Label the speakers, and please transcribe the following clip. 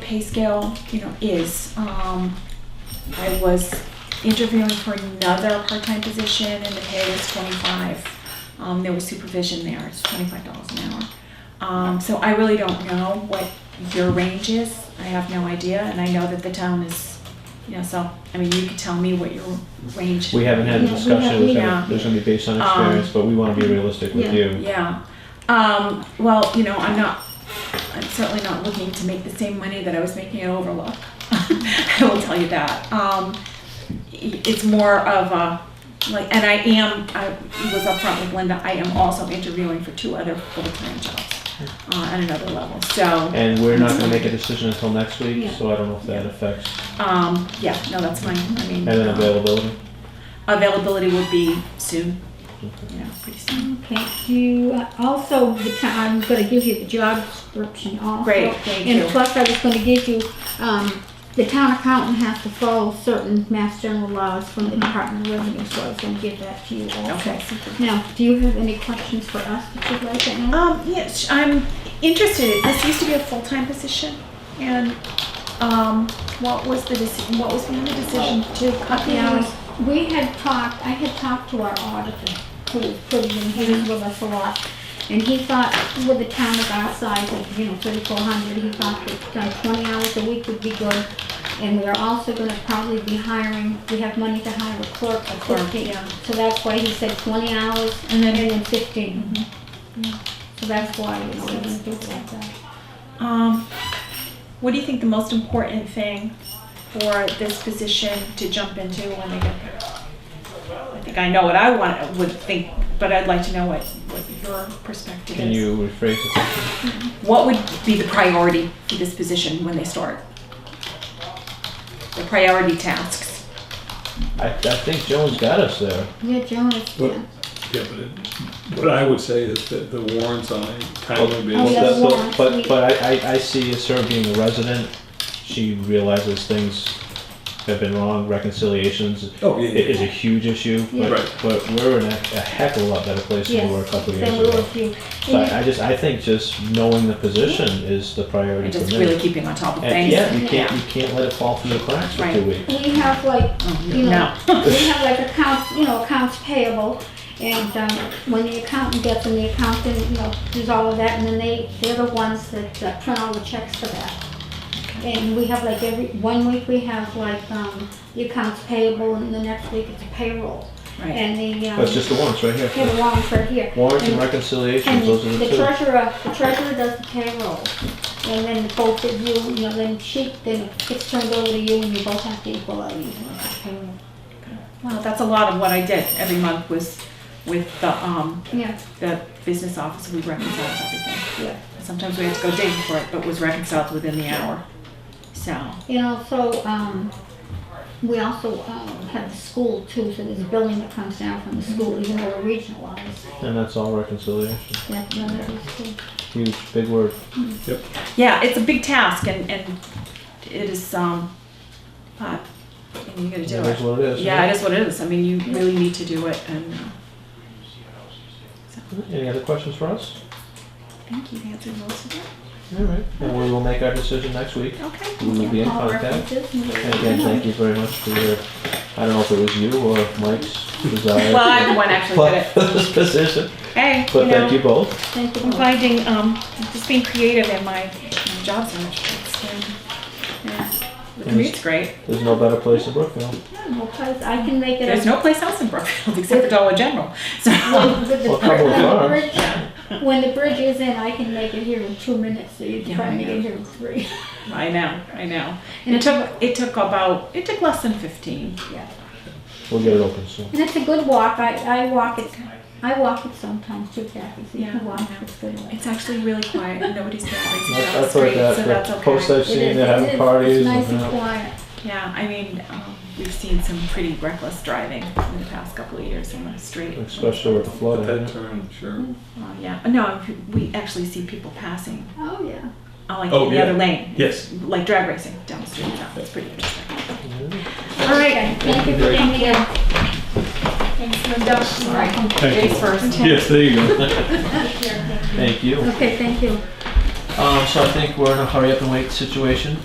Speaker 1: pay scale, you know, is. Um, I was interviewing for another part-time position and the pay was twenty-five. Um, there was supervision there, it's twenty-five dollars an hour. Um, so I really don't know what your range is. I have no idea, and I know that the town is, you know, so, I mean, you could tell me what your range.
Speaker 2: We haven't had a
Speaker 3: Yeah, we
Speaker 2: discussion, there's
Speaker 1: haven't,
Speaker 2: gonna, there's gonna be based on
Speaker 1: Um,
Speaker 2: experience, but we wanna be realistic with
Speaker 3: yeah.
Speaker 2: you.
Speaker 1: Yeah. Um, well, you know, I'm not, I'm certainly not looking to make the same money that I was making at Overlook. I will tell you that. Um, i- it's more of a, like, and I am, I was upfront with Linda, I am also interviewing for two other full-time jobs uh, at another level. So,
Speaker 2: And we're not gonna make a decision until next week,
Speaker 3: Yeah.
Speaker 2: so I don't know if that affects,
Speaker 1: um, yeah, no, that's fine. I mean,
Speaker 2: and then
Speaker 1: um,
Speaker 2: availability.
Speaker 1: availability would be soon,
Speaker 2: Okay.
Speaker 1: you know, pretty soon.
Speaker 3: Okay, do you, uh, also, the ti- I'm gonna give you the job description also.
Speaker 1: Great, thank you.
Speaker 3: And plus, I was gonna give you, um, the town accountant has to follow certain mass general laws from the Department of Revenue, so I was gonna give that to you also.
Speaker 1: Okay.
Speaker 3: Now, do you have any questions for us that you'd like to ask?
Speaker 1: Um, yes, I'm interested. This used to be a full-time position, and, um, what was the decision, what was behind the decision to cut the hours?
Speaker 3: We had talked, I had talked to our auditor, who was pretty, and he
Speaker 1: Mm-hmm.
Speaker 3: was with us a lot. And he thought, with a town of our size of, you know, thirty-four hundred, he thought that uh, twenty hours a week would be good. And we are also gonna probably be hiring, we have money to hire a clerk for
Speaker 1: Clerk,
Speaker 3: fifteen.
Speaker 1: yeah.
Speaker 3: So that's why he said twenty hours
Speaker 1: And
Speaker 3: and
Speaker 1: then- Mm-hmm.
Speaker 3: then fifteen.
Speaker 1: Yeah.
Speaker 3: So that's why, uh, you know, we didn't do it like that.
Speaker 1: Um, what do you think the most important thing for this position to jump into when they get there? I think I know what I want, would think, but I'd like to know what, what your perspective
Speaker 2: Can
Speaker 1: is.
Speaker 2: you rephrase the question?
Speaker 1: What would be the priority for this position when they start? The priority tasks.
Speaker 2: I, I think Joan's got us there.
Speaker 3: Yeah, Jonas,
Speaker 4: Well,
Speaker 3: yeah.
Speaker 4: Yeah, but it- what I would say is that the warrants on a timely
Speaker 2: Well,
Speaker 3: Oh, yeah.
Speaker 4: basis.
Speaker 2: that- but-
Speaker 3: that's
Speaker 2: But,
Speaker 3: sweet.
Speaker 2: but I, I, I see as her being a resident, she realizes things have been wrong, reconciliations
Speaker 4: Oh, yeah,
Speaker 2: i-
Speaker 4: yeah.
Speaker 2: is a huge issue,
Speaker 3: Yeah.
Speaker 2: but,
Speaker 4: Right.
Speaker 2: but we're in a a heck of a lot better place than we were a couple of
Speaker 3: Yes,
Speaker 2: years
Speaker 3: then we were
Speaker 2: ago.
Speaker 3: a few.
Speaker 2: So I, I just, I think just knowing the position is the priority
Speaker 1: And
Speaker 2: for
Speaker 1: just
Speaker 2: me.
Speaker 1: really keeping on top of
Speaker 2: And
Speaker 1: things.
Speaker 2: yeah, you can't, you can't let it fall through the cracks for two
Speaker 1: Right.
Speaker 2: weeks.
Speaker 3: We have like, you know, we have like accounts, you know, accounts payable. And um, when the accountant gets them, the accountant, you know, does all of that, and then they, they're the ones that uh, print all the checks for that. And we have like every, one week we have like um, the accounts payable, and the next week it's payroll.
Speaker 1: Right.
Speaker 3: And the, um,
Speaker 2: That's just the warrants right
Speaker 3: yeah,
Speaker 2: here.
Speaker 3: the warrants right here.
Speaker 2: Warrants and
Speaker 3: And-
Speaker 2: reconciliations,
Speaker 3: and
Speaker 2: those are
Speaker 3: the
Speaker 2: the two.
Speaker 3: treasurer, the treasurer does the payroll, and then both of you, you know, then she, then it gets turned over to you, and you both have to equalize you know, the payroll.
Speaker 1: Well, that's a lot of what I did every month was with the, um,
Speaker 3: Yeah,
Speaker 1: the business office, we reconciled everything.
Speaker 3: yeah.
Speaker 1: Sometimes we had to go digging for it, but was reconciled within the hour. So,
Speaker 3: And also, um, we also, um, have the school too, so there's billing that comes down from the school, even though we're regionalized,
Speaker 2: And that's all reconciliation.
Speaker 3: that's another issue.
Speaker 2: Huge, big word.
Speaker 1: yeah, it's a big task and, and it is, um, uh, and you gotta do
Speaker 2: That is
Speaker 1: it.
Speaker 2: what it is.
Speaker 1: Yeah, it is what it is. I mean, you really need to do it and, uh,
Speaker 2: Any other questions for us?
Speaker 1: I think you've answered most of it.
Speaker 2: All right, and we will make our decision next week.
Speaker 1: Okay.
Speaker 2: We will be in
Speaker 3: All
Speaker 2: contact.
Speaker 3: references, and
Speaker 2: And again, thank you very much for your, I don't know if it was you or Mike's desire.
Speaker 1: Well, I'm the one actually did it.
Speaker 2: for this position,
Speaker 1: Hey,
Speaker 2: but
Speaker 1: you
Speaker 2: thank you
Speaker 1: know,
Speaker 2: both.
Speaker 3: Thank you.
Speaker 1: I'm finding, um, just being creative in my my job search. It's been- yeah. The commute's great.
Speaker 2: There's no better place than Brookfield.
Speaker 3: No place- I can make it.
Speaker 1: There's
Speaker 3: a-
Speaker 1: no place else in Brookfield except for Dollar General. So,
Speaker 3: When- with the
Speaker 2: Well, a
Speaker 3: bridge-
Speaker 2: couple of
Speaker 3: when the
Speaker 2: cars.
Speaker 3: bridge- When the bridge is in, I can make it here in two minutes, so you can
Speaker 1: Yeah,
Speaker 3: try
Speaker 1: I
Speaker 3: to make
Speaker 1: know.
Speaker 3: it here in three.
Speaker 1: I know, I know.
Speaker 3: And
Speaker 1: It
Speaker 3: it's,
Speaker 1: took
Speaker 3: a-
Speaker 1: it took about it took less than fifteen.
Speaker 3: yeah.
Speaker 2: We'll get it open soon.
Speaker 3: and it's a good walk, I, I walk it, I walk it sometimes too, Kathy, so you
Speaker 1: Yeah,
Speaker 3: can walk,
Speaker 1: I know.
Speaker 3: it's good. walk.
Speaker 1: It's actually really quiet. and Nobody's been crazy
Speaker 2: I've
Speaker 1: down the
Speaker 2: I've heard
Speaker 1: street, so
Speaker 2: that,
Speaker 1: that's
Speaker 2: the
Speaker 1: okay.
Speaker 2: posts I've
Speaker 3: It
Speaker 2: seen,
Speaker 3: is-
Speaker 2: they're
Speaker 3: it is.
Speaker 2: having parties.
Speaker 3: It's nice
Speaker 2: and,
Speaker 3: and
Speaker 2: uh,
Speaker 3: quiet.
Speaker 1: Yeah, I mean, um, we've seen some pretty reckless driving in the past couple of years on the street.
Speaker 2: Especially with the
Speaker 4: But
Speaker 2: flooding.
Speaker 4: that turn, sure.
Speaker 1: Well, yeah, no, we actually see people passing,
Speaker 3: Oh, yeah.
Speaker 1: uh, like
Speaker 4: Oh,
Speaker 1: in the
Speaker 4: yeah.
Speaker 1: other lane,
Speaker 4: Yes.
Speaker 1: like drag racing down the street. Now. It's pretty interesting. All
Speaker 3: Okay,
Speaker 1: right.
Speaker 3: Thank you for
Speaker 4: very
Speaker 3: coming in.
Speaker 1: Thanks, Linda. Sorry. Face first.
Speaker 4: Yes, there you go.
Speaker 2: Thank you.
Speaker 3: Okay, thank you.
Speaker 2: Um, so I think we're in a hurry up and wait situation.